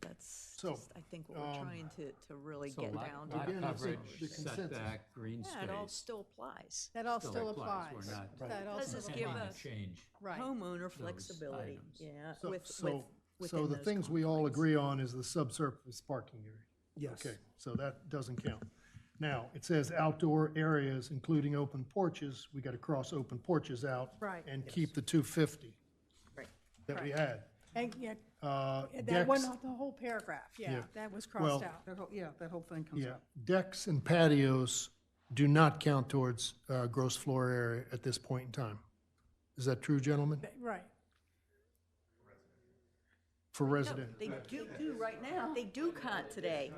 that's So, just, I think, what we're um, trying to, to really So get lot- down lot to. Again, it's the- coverage, the consensus. Setback, green Yeah, it all space. still applies. That all still still applies. applies. We're not- That all Does still this Can't give applies. even us- Change. Right, Homeowner flexibility, items. yeah, So- with, so- with, So within the those things we all confines. agree on is the subsurface parking area. Yes. Okay, so that doesn't count. Now, it says outdoor areas, including open porches, we gotta cross open porches out. Right. And keep the two fifty Right. that we had. and yeah, Uh, that one, decks- the whole paragraph, yeah, Yeah. that was Well- crossed out. That whole, Oh, yeah, that whole thing comes Yeah, out. decks and patios do not count towards uh, gross floor area at this point in time. Is that true, gentlemen? That- Right, For resident, They do, do right now, they do count today.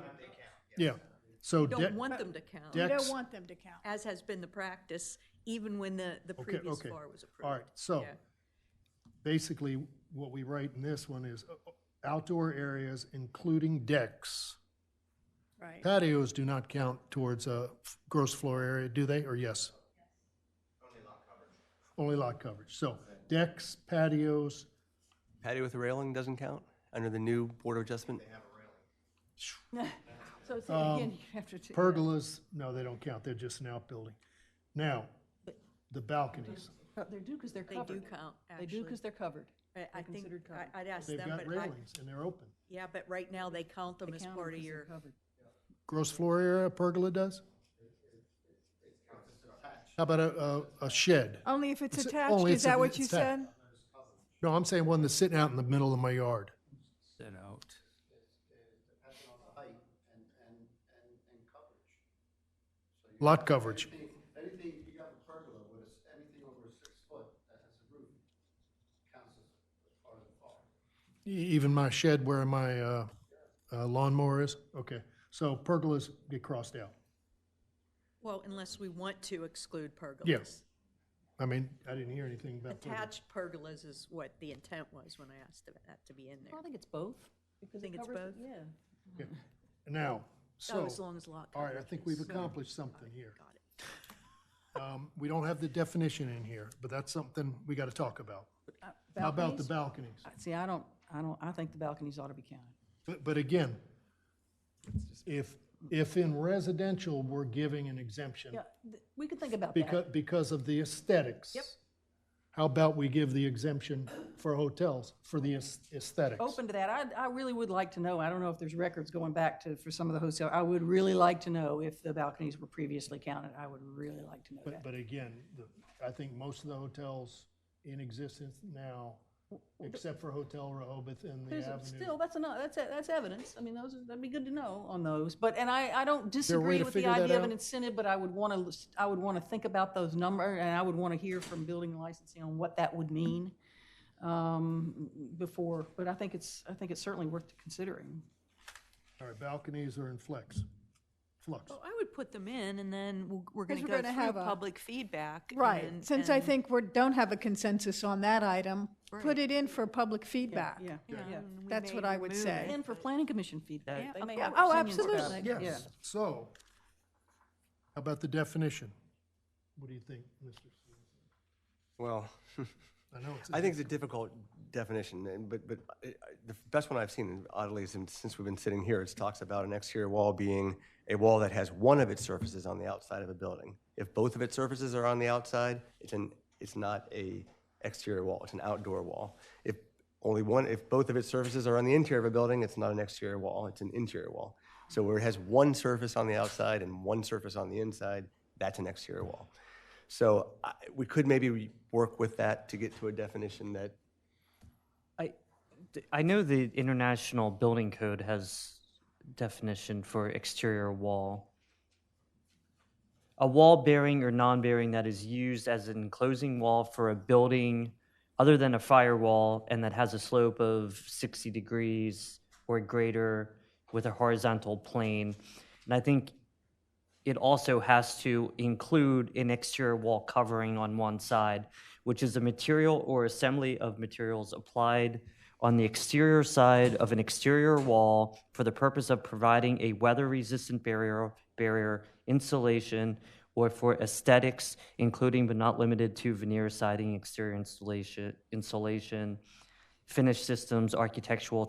yeah. So Don't de- want them to count, you Decks- don't want them to count. as has been the practice, even when the, the Okay, previous okay. FAR was approved. All right, so Yeah. basically, what we write in this one is uh, outdoor areas including decks. Right, Patios do not count towards uh, f- gross floor area, do they, or yes? Only lot coverage. Only lot coverage. So decks, patios, Patio with a railing doesn't count under the new Board of Adjustment? so say it Um, again, you have to. pergolas, no, they don't count, they're just an outbuilding. Now, the balconies, Uh, They do because they're They do covered. count, They do actually. because they're covered. I, I think, considered covered. I- I'd ask they've them, but got I, railings and they're open. yeah, but right now they count them as Count 'em part of 'cause they're your, covered. Gross floor area, a pergola does? How about a, a- a shed? Only if it's It's- attached, only is it's- that what you it's that. said? No, I'm saying one that's sitting out in the middle of my yard. Set out. Lot coverage, Anything, anything, if you have a pergola with a s anything over a six foot that has a roof counts as part of the farm. E- even my shed where my uh, uh, lawnmower is, okay. So pergolas get crossed out. well, unless we want to exclude pergolas. I mean, I didn't hear anything about pergolas. Attached pergolas is what the intent was when I asked about that to be in Well, there. I think it's both. because Think it it's covers- both? Yeah. Now, Oh, so, as long as lot all right, I coverage think is- we've accomplished something here. Got it. Um, We don't have the definition in here, but that's something we got to talk about. How about the Balconies? balconies? I- See, I don't, I don't, I think the balconies ought to be counted. But, but again, if, if in residential, we're giving an exemption Yeah, th- we could think about because, that. because of the aesthetics. Yep. How about we give the exemption for hotels for the aes- aesthetics? Open to that. I, I really would like to know, I don't know if there's records going back to, for some of the hotel. I would really like to know if the balconies were previously counted. I would really like to know But, that. but again, the- I think most of the hotels in existence now, except for Hotel Rehoboth and the There's a- Still, Avenue. that's enough, that's, e- that's evidence. I mean, those, are- that'd be good to know on those. But, and I, I a don't way disagree to with the figure that idea of an out? incentive, but I would want to, I would want to think about those number, and I would want to hear from building and licensing on what that would mean um, before, but I think it's, I think it's certainly worth considering. All right, balconies are in flex, flux. Well, I would put them in and then we'll- we're going to we're go gonna through have a- public feedback. Right, and- since I and- think we don't have a consensus on that item, Right. put it in for public feedback. Yeah. you know, Yeah. and we That's may what I would remove say. And for planning commission feedback, they may Yeah, have oh, opinions about absolutely. it. Yeah. Yes, so, how about the definition? What do you think, Mr.? Stevens? Well, I know it's. a I think it's a difficult definition, and, but, but I- I- the best one I've seen oddly is in- since we've been sitting here, it talks about an exterior wall being a wall that has one of its surfaces on the outside of a building. If both of its surfaces are on the outside, it's an, it's not a exterior wall, it's an outdoor wall. If only one, if both of its surfaces are on the interior of a building, it's not an exterior wall, it's an interior wall. So where it has one surface on the outside and one surface on the inside, that's an exterior wall. So I- we could maybe re- work with that to get to a definition that, I, th- I know the International Building Code has definition for exterior wall. A wall bearing or non-bearing that is used as an enclosing wall for a building other than a firewall and that has a slope of 60 degrees or greater with a horizontal plane. And I think it also has to include an exterior wall covering on one side, which is a material or assembly of materials applied on the exterior side of an exterior wall for the purpose of providing a weather-resistant barrier, barrier insulation, or for aesthetics, including but not limited to veneer siding, exterior insulation, insulation, finished systems, architectural